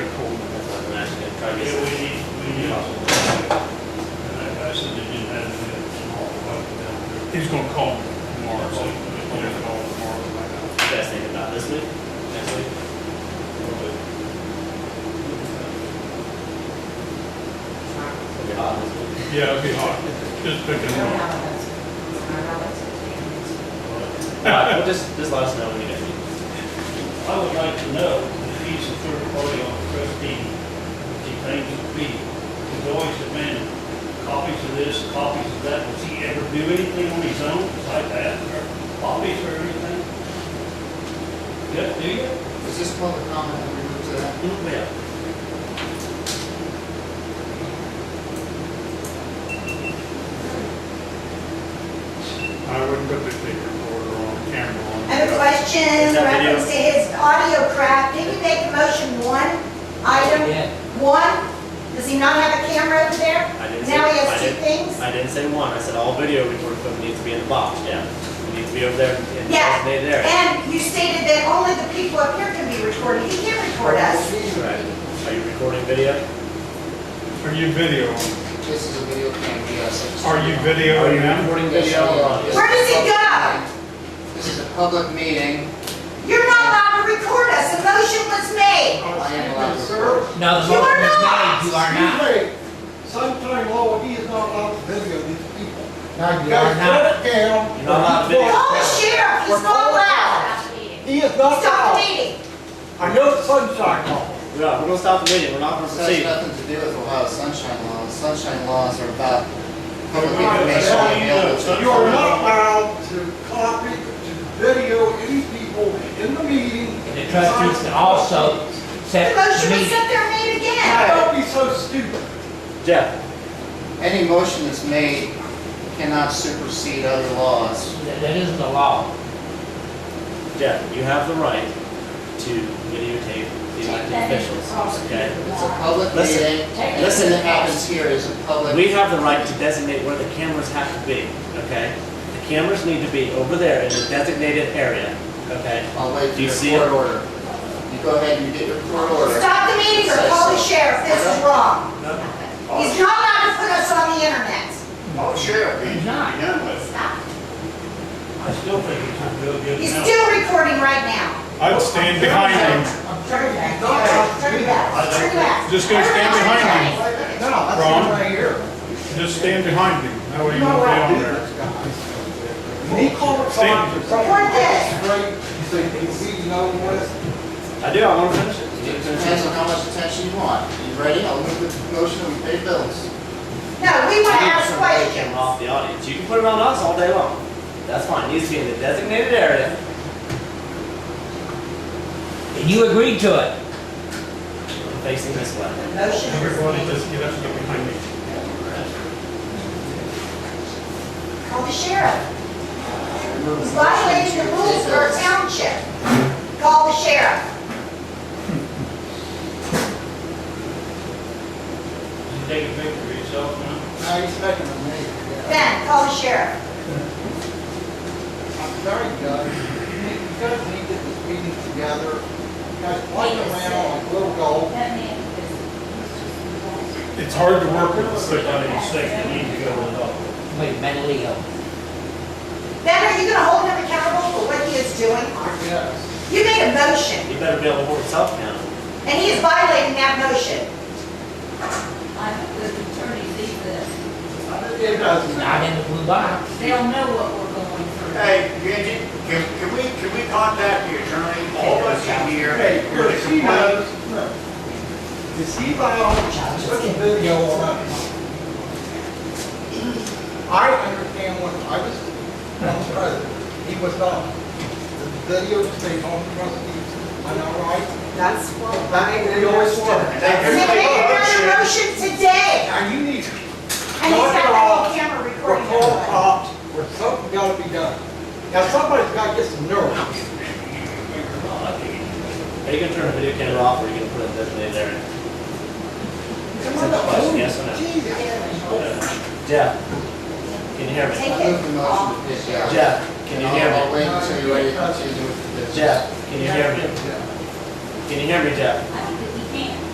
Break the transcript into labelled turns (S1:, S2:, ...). S1: He's gonna call me tomorrow, so he'll just call tomorrow. and find out.
S2: Best thing about this week, next week.
S3: uh,
S2: It'll be hot this week.
S1: Yeah, it'll be hot, just picking
S4: don't
S1: up.
S4: have a budget. It's not our budget.
S2: Alright, well, just, just let us know when you get it.
S5: I would like to know if he's a third party on the trustee, if he claims to be. He's always demanding copies of this, copies of that. Does he ever do anything on his own like that, or copies or anything? Yeah, do you?
S6: Is this public comment that we move to that?
S5: Yeah.
S1: I wouldn't put the tape recorder on camera on.
S4: I have a question
S2: Is that video?
S4: reference to his audio crap. Did he make the motion one item? One? Does he not have a camera over there?
S2: I didn't say-
S4: Now he
S2: I
S4: has two
S2: didn't-
S4: things?
S2: I didn't say one, I said all video recording equipment needs to be in the box, yeah. It needs to be over there in the
S4: Yeah.
S2: designated area.
S4: And you stated that only the people up here can be recorded. He can't record us.
S2: Right. Are you recording video?
S1: Are you video?
S6: This is a video cam, yes.
S1: Are you video
S2: Are you
S1: now?
S2: recording
S6: Yes,
S2: video?
S6: we are. This is a
S4: Where does he
S6: public
S4: go?
S6: meeting. This is a public meeting.
S4: You're not allowed to record us. The motion was
S6: I
S4: made.
S6: am allowed to record.
S7: No, the
S4: You
S7: motion
S4: are
S7: is
S4: not.
S7: made, you are not.
S8: Sunshine Law, oh, he is not allowed to video these people.
S7: No, you are not.
S8: Shut it down.
S2: You're not allowed to video.
S4: Call the sheriff. He's not allowed.
S8: He is not
S4: Stop the
S8: allowed.
S4: meeting.
S8: I know the Sunshine Law.
S2: Yeah, we're gonna stop the meeting, we're not gonna
S6: This has
S2: proceed.
S6: nothing to do with Ohio sunshine laws. Sunshine laws are about public information
S8: So you
S6: available to.
S8: know, You are not allowed to copy, to video any people in the meeting.
S7: And the trustees can also
S4: The
S7: set the
S4: motion was
S7: meeting.
S4: set there made again.
S8: Don't be so stupid.
S2: Jeff,
S6: Any motion that's made cannot supersede other laws.
S7: That that is the law.
S2: Jeff, you have the right to videotape the elected officials, okay?
S6: It's a public
S2: Listen.
S6: meeting. Everything that happens here is a public.
S2: We have the right to designate where the cameras have to be, okay? The cameras need to be over there in the designated area, okay?
S6: I'll wait for
S2: Do you
S6: your
S2: see it?
S6: court order. You go ahead and you get your court order.
S4: Stop the meeting or call the sheriff. This is wrong. He's not allowed to put us on the internet.
S6: Oh, sure.
S7: He's not.
S4: Stop.
S5: I still think he's not doing good
S4: He's
S5: enough.
S4: still recording right now.
S1: I'd stand behind him.
S4: Turn it back. Turn it back. Turn it back.
S1: Just go stand behind
S4: him.
S8: No, that's
S1: Wrong.
S8: him right here.
S1: Just stand behind him, that way
S8: You
S1: you
S8: know
S1: won't
S8: what
S1: be
S8: I
S1: on
S8: do
S1: there.
S8: this guy. When he called it
S1: Stand.
S8: something.
S4: Report this.
S8: Straight, so you can be known with.
S2: I do, I wanna finish it.
S6: It depends on how much attention you want. You ready? I'll move the motion and we pay bills.
S4: No, we want to ask
S2: Take
S4: questions.
S2: him off the audience, you can put it on us all day long. That's fine, it needs to be in the designated area.
S7: And you agreed to it.
S2: facing this way.
S4: Motion
S1: Everybody
S4: is
S1: just get up and get behind me.
S4: made. Call the sheriff. He's violating the rules of our township. Call the sheriff.
S5: You Take a picture of yourself now.
S8: Now he's making a mistake.
S4: Ben, call the sheriff.
S8: I'm sorry, Doug, you need- you guys need to get this meeting together, you guys play around like little goal.
S1: It's hard to work with a sick
S5: I
S1: audience.
S5: didn't say you need to go with all.
S7: Wait, mentally ill.
S4: Ben, are you going to hold him accountable for what he is doing?
S8: Yes.
S4: You made a motion,
S2: You better be able to hold yourself accountable.
S4: and he is violating that motion.
S3: I hope the attorney sees this.
S8: It doesn't
S7: Not in the blue box.
S3: They'll know what we're going through.
S9: Hey, Bridget, can, can we, can we contact the attorney, all of us in here?
S8: Hey,
S9: with a
S8: here, she
S9: complaint?
S8: knows, no. Is he allowed to put a video on us? I understand when I was, I was president, he was not. The video stayed on trustees, am I right?
S4: That's what
S8: That, we always were.
S4: He made another motion today,
S8: Now you need to
S4: and he's got the whole camera
S8: We're
S4: recording.
S8: called
S4: of it.
S8: cops, or something gotta be done. Now, somebody's gotta get some nerve.
S2: Are Oh, you gonna turn the video camera off or are you gonna put it in the designated area? Yes or no?
S8: Jesus.
S7: Oh.
S2: Jeff, can you hear me?
S4: Take
S6: I move the
S4: it
S6: motion
S4: off.
S6: to pay bills.
S2: Jeff, can you hear
S7: Oh.
S6: I'll
S2: me?
S6: wait until you're ready to continue with the business.
S2: Jeff, can you hear me? Can you hear me, Jeff?
S3: I